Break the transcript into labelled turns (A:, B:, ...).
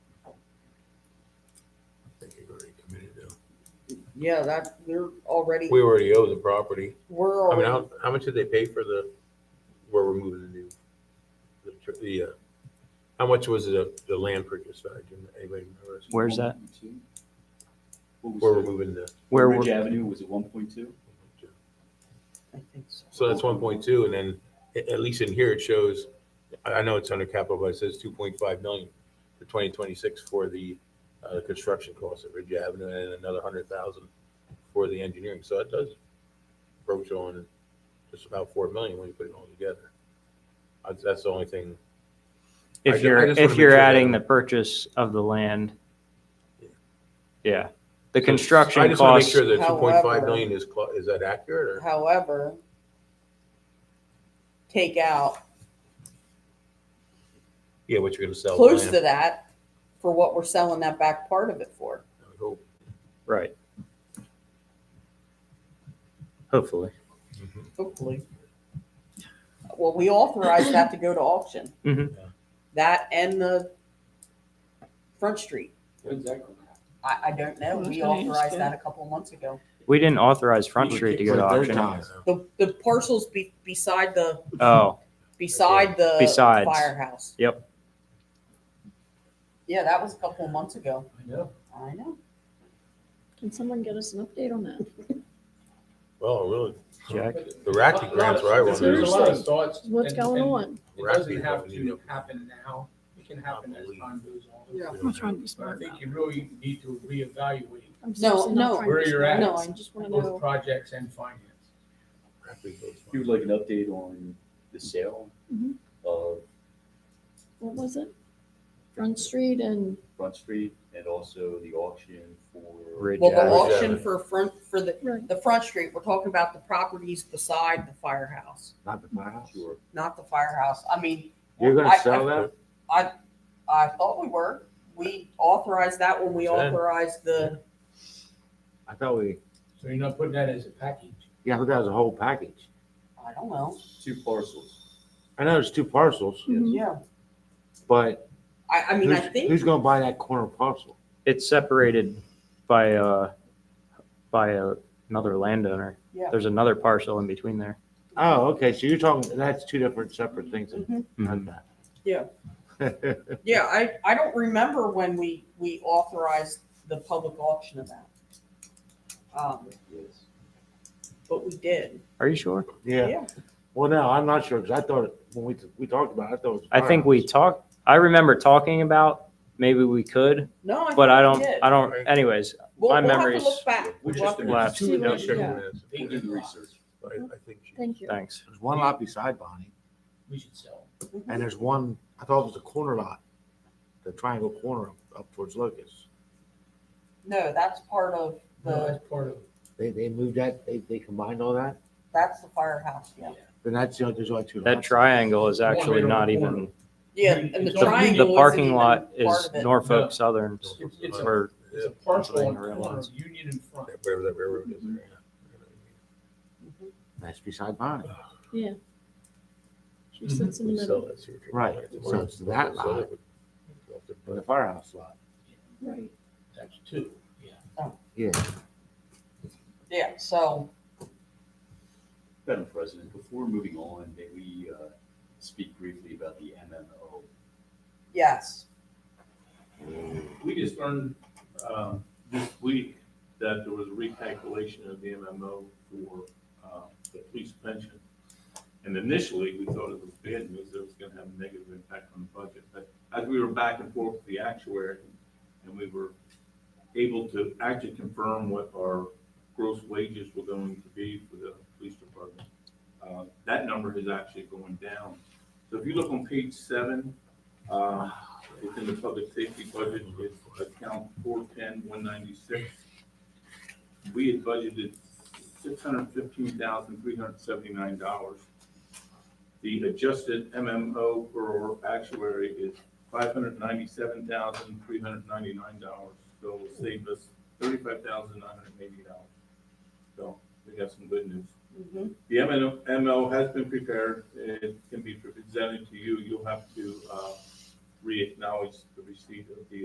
A: Yeah, that, they're already,
B: We already owe the property.
A: we're
B: I mean,
A: already,
B: how, how much did they pay for the, where we're moving the new? the tr- The, uh, how much was the, the land purchase value? Do Anybody remember?
C: Where's that?
D: 1.2? What
B: Where we're
D: was that?
B: moving the,
C: Where
D: Ridge
C: we're,
D: Avenue, was it one point two?
A: I think so.
B: so that's one point two, and then a- at least in here it shows, I, I know it's under capital, but it says two point five million for twenty twenty-six for the, uh, construction costs at Ridge Avenue and another hundred thousand for the engineering. So it does approach on just about four million when you put it all together. That's- That's the only thing I
C: if
B: ju-
C: you're,
B: I just wanna
C: if
B: make
C: you're
B: sure that-
C: adding the purchase of the land.
B: Yeah.
C: Yeah, the
B: So, I
C: construction
B: just want to
C: costs,
B: Make sure that two point five
A: However-
B: million is, clo- is that accurate or?
A: However, take out
B: Yeah, what you're gonna sell. the
A: close
B: land,
A: to that for what we're selling that back part of it for.
B: I would hope.
C: right. Hopefully.
A: Hopefully. Well, we authorized that to go to auction.
C: Mhm.
B: Yeah.
A: That and the Front Street.
D: When's that going to happen?
A: I, I don't know.
E: I was
A: We
E: gonna ask
A: authorized
E: that.
A: that a couple of months ago.
C: We didn't authorize Front
F: We
C: Street to
F: kicked
C: go to
F: it a third
C: auction.
F: time.
A: The, the parcels be, beside the,
C: Oh,
A: beside the
C: Besides.
A: firehouse.
C: Yep.
A: Yeah, that was a couple of months ago.
D: I know.
A: I know.
E: Can someone get us an update on that?
B: Well, really,
C: Jack,
B: the Racky grants where I was.
E: Seriously.
G: There's a lot of thoughts.
E: What's
G: and-
E: going
G: and
E: on?
G: It
B: Racky
G: doesn't have
B: doesn't need
G: to happen now. It can happen as time goes on.
E: I'm trying to be
G: But I
E: smart
G: think
E: about it.
G: you really need to reevaluate
E: I'm
A: no,
E: seriously not trying to be
G: where you're at.
E: smart. No, I just want to
G: both
E: know.
G: projects and finance.
B: Racky goes
D: You
B: on.
D: would like an update on the sale
E: Mhm.
A: Mm-hmm.
D: of
E: What was it? Front Street and
D: Front Street and also the auction for.
C: Ridge
A: Well, the
B: Avenue.
A: auction for front, for the,
E: Right.
A: the Front Street, we're talking about the properties beside the firehouse,
F: Not the firehouse.
D: Sure.
A: not the firehouse. I mean.
F: You're
A: I-
F: gonna
A: I-
F: sell that?
A: I thought we were. We authorized that when we
B: Ten.
A: authorized the,
F: I thought we,
G: So you're not putting that as a package.
F: yeah, I thought that was a whole package.
A: I don't know.
D: Two parcels.
F: I know it's two parcels,
E: Mhm.
A: Yeah.
F: but
A: Mm-hmm. I, I mean, I
F: who's, who's
A: think,
F: gonna buy that corner parcel?
C: it's separated by, uh, by a- another landowner.
A: Yeah.
C: There's another parcel in between there.
F: Oh, okay, so you're talking, that's two different separate things.
A: Mhm.
C: Mhm.
A: Yeah.
F: Okay.
A: yeah, I, I don't remember when we, we authorized the public auction of that. Um,
D: Yes.
A: but we did.
C: Are you sure?
F: Yeah, well, no, I'm not sure, because I thought, when we, we talked about it, I thought it was.
C: I think we
F: firehouse.
C: talked, I remember talking about, maybe we could,
A: No, I
C: but I
A: think
C: don't,
A: we did.
C: I don't, anyways,
A: We'll-
C: my
A: we'll have to
C: memories-
A: Look back.
D: We
A: We'll
D: just
A: have to-
C: Last-
B: Two
E: Yeah.
B: industrial
E: Yeah.
B: minutes.
G: They
D: We'll do the research.
B: I, I think she-
E: Thank you.
C: thanks.
F: There's one lot beside Bonnie,
G: We should sell.
A: Mhm.
F: and there's one, I thought it was a corner lot, the triangle corner up- up towards Locust.
A: No, that's part of
G: No,
A: the,
G: That's part of.
F: They, they moved that, they, they combined all that,
A: that's the firehouse, yeah.
F: then that's, the only- there's only two lots.
C: That triangle is actually
G: Corner,
C: not
G: corner.
C: even,
A: Yeah,
G: It's
A: and the
G: on-
A: triangle.
C: the
A: isn't
C: parking
A: even
C: lot
A: part
C: is
A: of it.
G: No.
C: Norfolk Southern,
G: It's- it's a-
C: or
G: It's a
F: what I
G: parcel on
F: didn't
G: the corner
F: realize.
G: of Union and Front.
B: wherever that railroad is. there,
F: That's beside Bonnie.
E: She sits in the
B: We
G: Mm-hmm.
B: sell
E: middle.
B: that secret.
F: Right, so it's that
B: Sell it.
F: Or the firehouse lot.
E: Right.
G: That's two, yeah.
F: Yeah.
A: Yeah, so,
D: Madam President, before moving on, may we uh, speak briefly about the MMO?
A: yes.
H: We just learned um, this week that there was a recalculation of the MMO for uh, the police pension. And initially, we thought it was bad news, that it was going to have a negative impact on the budget. But as we were back and forth with the actuary, and we were able to actually confirm what our gross wages were going to be for the police department, uh, that number is actually going down. So if you look on page seven, uh, within the public safety budget, it's account four ten one ninety-six. We had budgeted six hundred fifteen thousand three hundred seventy-nine dollars. The adjusted MMO for our actuary is five hundred ninety-seven thousand three hundred ninety-nine dollars. So it will save us thirty-five thousand nine hundred eighty dollars. So we got some good news.
A: Mhm.
H: The MNO MO has been prepared. It can be presented to you. You'll have to uh, re-acknowledge the receipt of the